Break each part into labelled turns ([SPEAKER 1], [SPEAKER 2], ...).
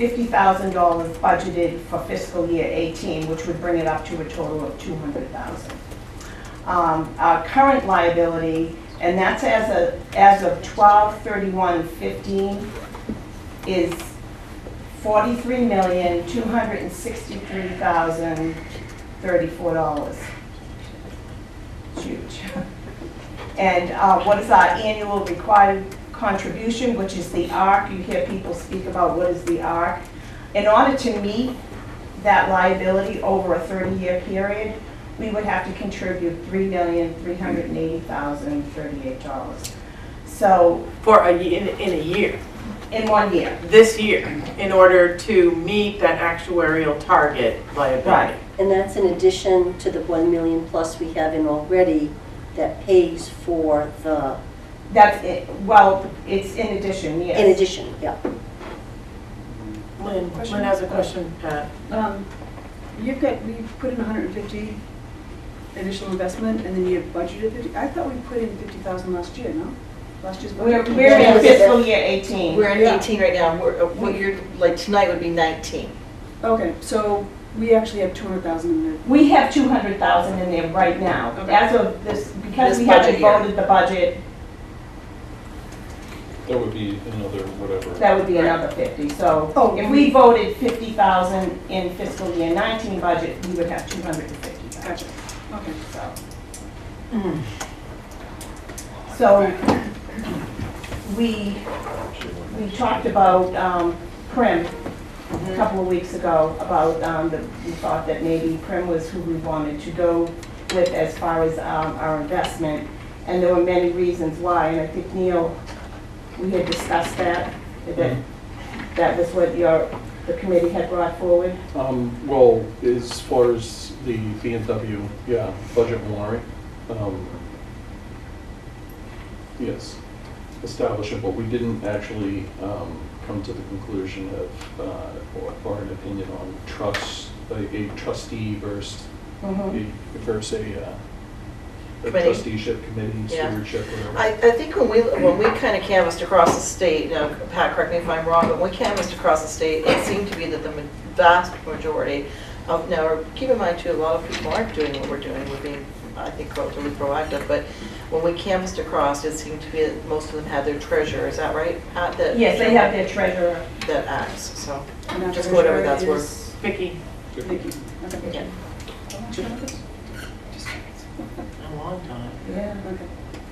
[SPEAKER 1] fifty thousand dollars budgeted for fiscal year eighteen, which would bring it up to a total of two hundred thousand. Um, our current liability, and that's as of, as of twelve thirty-one fifteen, is forty-three million, two hundred and sixty-three thousand, thirty-four dollars. Huge. And uh, what is our annual required contribution, which is the ARC? You hear people speak about what is the ARC. In order to meet that liability over a 30-year period, we would have to contribute $3,380,038. So,
[SPEAKER 2] for a, ye- in, in a year,
[SPEAKER 1] in one year.
[SPEAKER 2] this year, in order to meet that actuarial target liability.
[SPEAKER 3] And that's in addition to the 1 million plus we have in already that pays for the,
[SPEAKER 1] That's, it. well, it's in addition, yes.
[SPEAKER 3] in addition, yeah.
[SPEAKER 2] Lynn, Lynn has a question, uh, Pat.
[SPEAKER 4] Um, You've got, we put in 150 initial investment, and then you budgeted 50, I thought we put in 50,000 last year, no? Last year's
[SPEAKER 1] We're
[SPEAKER 4] budget?
[SPEAKER 1] we're in fiscal year 18.
[SPEAKER 5] We're in
[SPEAKER 4] Yeah.
[SPEAKER 5] 18 right now, we're, uh, what you're, like, tonight would be 19.
[SPEAKER 4] Okay, so we actually have 200,000 in there.
[SPEAKER 1] We have two hundred thousand in there right now,
[SPEAKER 4] Okay.
[SPEAKER 1] as of this, because
[SPEAKER 5] This
[SPEAKER 1] we haven't
[SPEAKER 5] budget year.
[SPEAKER 1] voted the budget,
[SPEAKER 6] That would be another whatever.
[SPEAKER 1] that would be another fifty, so.
[SPEAKER 4] Oh,
[SPEAKER 1] If
[SPEAKER 4] we-
[SPEAKER 1] we voted fifty thousand in fiscal year nineteen budget, we would have two hundred and fifty
[SPEAKER 4] Gotcha,
[SPEAKER 1] thousand,
[SPEAKER 4] okay.
[SPEAKER 1] so. So, we, we talked about, um, Prim a couple of weeks ago, about, um, the, we thought that maybe Prim was who we wanted to go with as far as, um, our investment. And there were many reasons why, and I think Neil, we had discussed that, that, that was what your, the committee had brought forward.
[SPEAKER 6] Um, well, as far as the B and W, yeah, budget warrant, um, yes, establish it, but we didn't actually, um, come to the conclusion of, uh, or, or an opinion on trust, a a trustee versus,
[SPEAKER 4] Mm-hmm.
[SPEAKER 6] a- versus a, uh, a
[SPEAKER 5] Committee.
[SPEAKER 6] trusteeship committee,
[SPEAKER 5] Yeah.
[SPEAKER 6] stewardship, whatever.
[SPEAKER 5] I, I think when we, when we kind of canvassed across the state, now, Pat, correct me if I'm wrong, but when we canvassed across the state, it seemed to be that the ma- vast majority of, now, keep in mind too, a lot of people aren't doing what we're doing, we're being, I think, relatively proactive, but when we canvassed across, it seemed to be that most of them had their treasurer, is that right, Pat? that-
[SPEAKER 1] Yes, they have their treasurer.
[SPEAKER 5] That acts, so,
[SPEAKER 4] And our
[SPEAKER 5] Just
[SPEAKER 4] treasurer
[SPEAKER 5] whatever that's worth.
[SPEAKER 4] is-
[SPEAKER 2] Vicky,
[SPEAKER 4] Thank you. Okay.
[SPEAKER 5] yeah, a long time.
[SPEAKER 1] Yeah.
[SPEAKER 4] Okay.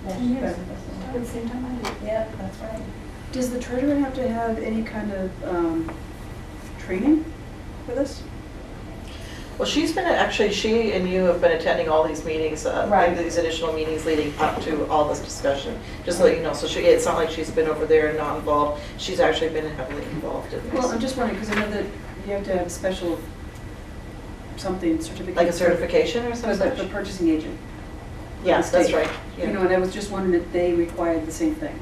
[SPEAKER 7] At the same time, I do.
[SPEAKER 1] Yeah, that's right.
[SPEAKER 4] Does the treasurer have to have any kind of um, training for this?
[SPEAKER 5] Well, she's been, actually, she and you have been attending all these meetings, uh,
[SPEAKER 1] Right.
[SPEAKER 5] these additional meetings leading up to all this discussion, just so you know. So she, it's not like she's been over there and not involved, she's actually been heavily involved in
[SPEAKER 4] Well, I'm
[SPEAKER 5] this.
[SPEAKER 4] just wondering, because I know that you have to have a special something, certificate.
[SPEAKER 5] Like a
[SPEAKER 4] for-
[SPEAKER 5] certification or
[SPEAKER 4] For the- the
[SPEAKER 5] something?
[SPEAKER 4] purchasing agent.
[SPEAKER 5] Yes, that's
[SPEAKER 4] state.
[SPEAKER 5] right.
[SPEAKER 4] You
[SPEAKER 5] yeah.
[SPEAKER 4] know, and I was just wondering if they required the same thing.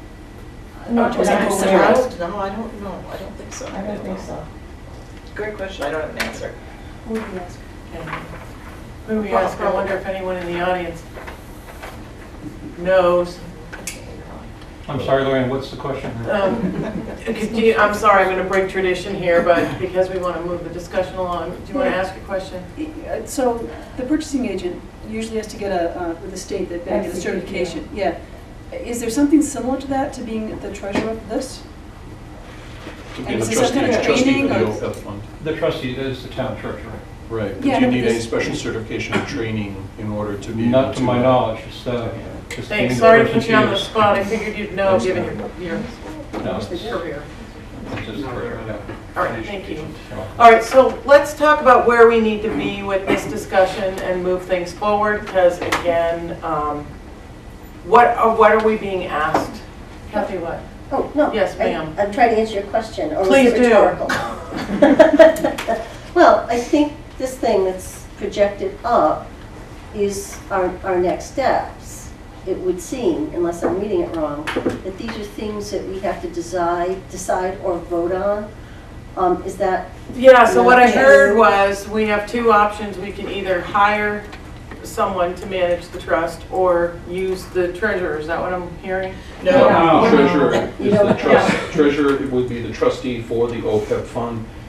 [SPEAKER 1] Uh, Not
[SPEAKER 4] Was
[SPEAKER 1] that I'm
[SPEAKER 4] it
[SPEAKER 5] No,
[SPEAKER 1] aware
[SPEAKER 5] I
[SPEAKER 1] of.
[SPEAKER 5] don't- No, I don't know, I don't think so.
[SPEAKER 1] I don't think so.
[SPEAKER 5] Great question, I don't have an answer.
[SPEAKER 4] Who do you ask?
[SPEAKER 2] who we ask, I wonder if anyone in the audience knows.
[SPEAKER 8] I'm sorry, Lorraine, what's the question?
[SPEAKER 2] Um, do you- I'm sorry, I'm going to break tradition here, but because we want to move the discussion along, do you want to ask a question?
[SPEAKER 4] Uh, So the purchasing agent usually has to get a, uh, with the state, that they have to get a
[SPEAKER 1] SCPP, yeah.
[SPEAKER 4] certification. Yeah. Is there something similar to that, to being the treasurer of this?
[SPEAKER 6] To
[SPEAKER 4] And
[SPEAKER 6] be the
[SPEAKER 4] is this some
[SPEAKER 6] trustee,
[SPEAKER 4] kind of
[SPEAKER 6] trustee for
[SPEAKER 4] training
[SPEAKER 6] the
[SPEAKER 4] or-
[SPEAKER 6] OPEB fund.
[SPEAKER 8] The trustee is the town treasurer.
[SPEAKER 6] Right, do
[SPEAKER 4] Yeah,
[SPEAKER 6] you
[SPEAKER 4] but
[SPEAKER 6] need any
[SPEAKER 4] this-
[SPEAKER 6] special certification or training in order to be able to?
[SPEAKER 8] Not to my knowledge, it's, uh, just being the
[SPEAKER 2] Thanks, sorry to
[SPEAKER 8] person
[SPEAKER 2] put you on the
[SPEAKER 8] used.
[SPEAKER 2] spot, I figured you'd know, given your,
[SPEAKER 8] No, it's-
[SPEAKER 2] your career.
[SPEAKER 8] it's just for, yeah.
[SPEAKER 2] All right, thank you.
[SPEAKER 8] So-
[SPEAKER 2] All right, so let's talk about where we need to be with this discussion and move things forward, because again, um, what are, what are we being asked? Kathy, what?
[SPEAKER 3] Oh, no.
[SPEAKER 2] Yes,
[SPEAKER 3] I-
[SPEAKER 2] ma'am.
[SPEAKER 3] I'm trying to answer your question, or was
[SPEAKER 2] Please
[SPEAKER 3] it
[SPEAKER 2] do.
[SPEAKER 3] rhetorical? Well, I think this thing that's projected up is our, our next steps. It would seem, unless I'm reading it wrong, that these are things that we have to decide, decide or vote on. Um, Is that
[SPEAKER 2] Yeah, so what I
[SPEAKER 3] Yes.
[SPEAKER 2] heard was, we have two options, we can either hire someone to manage the trust or use the treasurer, is that what I'm hearing?
[SPEAKER 5] No.
[SPEAKER 6] Treasurer
[SPEAKER 3] You
[SPEAKER 6] is the
[SPEAKER 3] don't-
[SPEAKER 6] trust, treasurer would be the trustee for the OPEB E fund.